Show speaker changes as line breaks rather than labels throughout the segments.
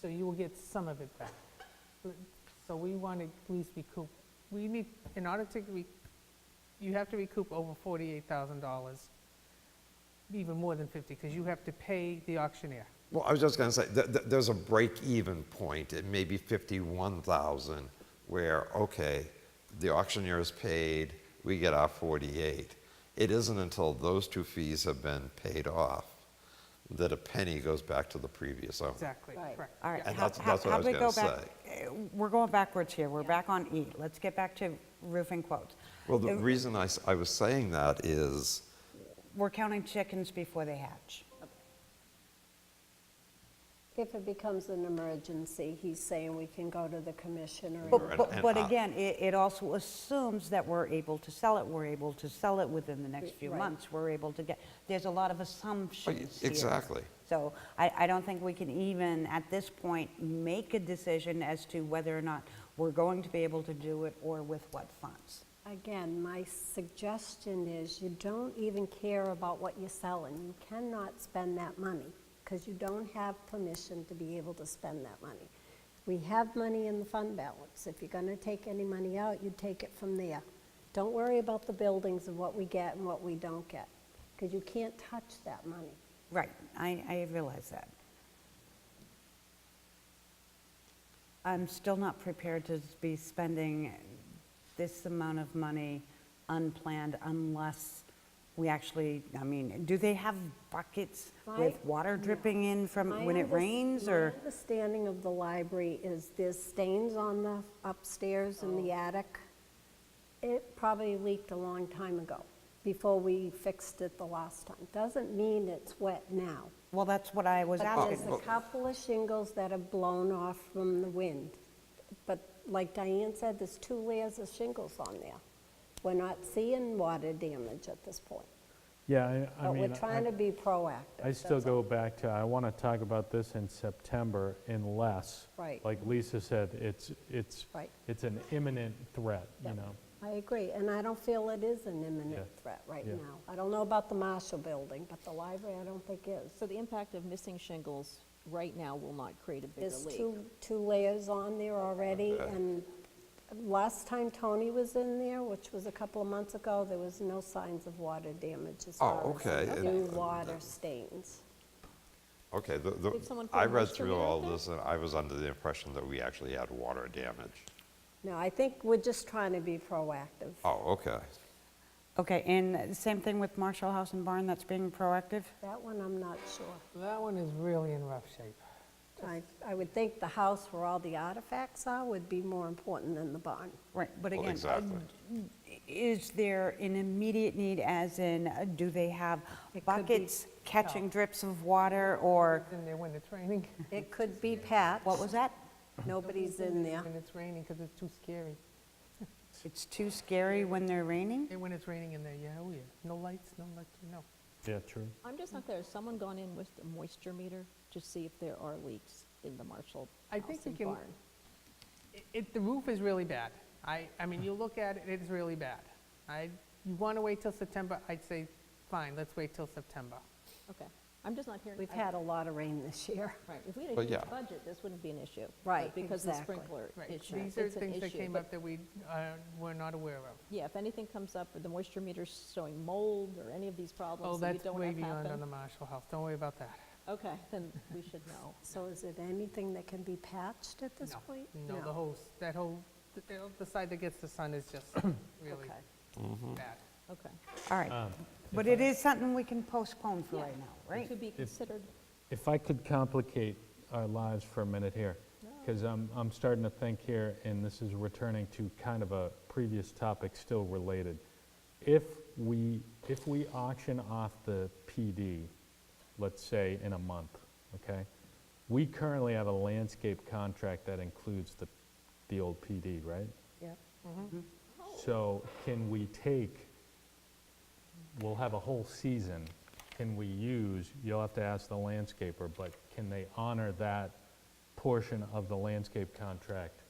so you will get some of it back. So we want to at least recoup, we need, in order to, re- you have to recoup over $48,000, even more than 50, because you have to pay the auctioneer.
Well, I was just going to say, th- th- there's a break-even point at maybe 51,000 where, okay, the auctioneer is paid, we get our 48. It isn't until those two fees have been paid off that a penny goes back to the previous owner.
Exactly,
Right,
correct.
all right.
yeah.
And
How-
that's-
how-
that's what I
how
was
we
gonna
go back- eh, We're going backwards here, we're back on E. Let's get back to roofing quotes.
Well, the
Uh,
reason I, s- I was saying that is,
We're counting chickens before they hatch.
If it becomes an emergency, he's saying we can go to the commissioner. and-
Right,
But, but
and
but
I-
again, it, it also assumes that we're able to sell it, we're able to sell it within the next few
Right.
months, we're able to get, there's a lot of assumptions here.
exactly.
So I, I don't think we can even, at this point, make a decision as to whether or not we're going to be able to do it or with what funds.
Again, my suggestion is you don't even care about what you're selling. You cannot spend that money because you don't have permission to be able to spend that money. We have money in the fund balance. If you're going to take any money out, you take it from there. Don't worry about the buildings and what we get and what we don't get because you can't touch that money.
Right, I, I realize that. I'm still not prepared to be spending this amount of money unplanned unless we actually, I mean, do they have buckets with
My-
water dripping in
My
from when it
under-
rains
my
or?
understanding of the library is there's stains on the upstairs in the
Oh.
attic. It probably leaked a long time ago, before we fixed it the last time. Doesn't mean it's wet now.
Well, that's what I was
But there's
asking.
a couple of shingles that have blown off from the wind. But like Diane said, there's two layers of shingles on there. We're not seeing water damage at this point.
Yeah, I- I
But
mean.
we're
I-
trying to be proactive.
I still
that's all.
go back to, I want to talk about this in September unless,
Right.
like Lisa said, it's, it's,
Right.
it's an imminent threat, you
Yep.
know?
I agree, and I don't feel it is an imminent
Yeah.
threat right
Yeah.
now. I don't know about the Marshall Building, but the library I don't think is.
So the impact of missing shingles right now will not create a bigger
There's
leak.
two, two layers on there already, and last time Tony was in there, which was a couple of months ago, there was no signs of water damage as
Oh,
far
okay,
as
and-
new water stains.
okay, the, the,
Did someone put
I
a
read
moisture
through
meter up
all
there?
this and I was under the impression that we actually had water damage.
No, I think we're just trying to be proactive.
Oh, okay.
Okay, and the same thing with Marshall House and Barn, that's being proactive?
That one, I'm not sure.
That one is really in rough shape.
I, I would think the house where all the artifacts are would be more important than the barn.
Right, but
Well,
again,
Exactly.
Is there an immediate need, as in, uh, do they have
It could be-
buckets catching drips of water, or,
It's in there when it's raining.
It could be patched.
what was that?
Nobody's in there.
When it's raining, because it's too scary.
It's too scary when they're raining?
And when it's raining in there, yeah, oh yeah, no lights, no electric, no.
Yeah, true.
I'm just not there, has someone gone in with a moisture meter to see if there are leaks in the Marshall
I
house
think we
and
can-
barn?
It- It, the roof is really bad. I, I mean, you look at it, it's really bad. I, you want to wait till September, I'd say, fine, let's wait till September.
Okay, I'm just not hearing.
We've
I-
had a lot of rain this year.
Right, if we had a
Well,
huge
yeah.
budget, this wouldn't be an issue. but
Right,
Because of the
exactly.
sprinkler
Right,
issue.
these are
it's an
things that
issue,
came
but-
up that we uh, were not aware of.
Yeah, if anything comes up, the moisture meter's showing mold or any of these
Oh,
problems that you
that's
don't
way
want to
beyond on the
happen.
Marshall House, don't worry about that.
Okay, then we should know.
So is it anything that can be patched at this
No,
point?
No, the whole, s- that whole, the- the- the side that gets the sun is just really
Okay.
bad.
Okay.
All right, but it is something we can postpone for
Yeah.
right now,
It
right?
could be considered,
If I could complicate our lives for a minute here, because I'm, I'm starting to think here, and this is returning to kind of a previous topic still related. If we, if we auction off the PD, let's say in a month, okay? We currently have a landscape contract that includes the, the old PD, right?
Yep.
So can we take, we'll have a whole season, can we use, you'll have to ask the landscaper, but can they honor that portion of the landscape contract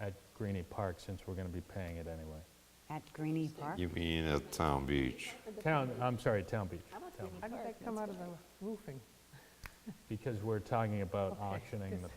at Greenie Park since we're going to be paying it anyway?
At Greenie Park?
You mean at Town Beach?
Town, I'm sorry, Town Beach,
how about
Town
How
the
did that come out of the roofing?
because we're talking about
Okay.
auctioning the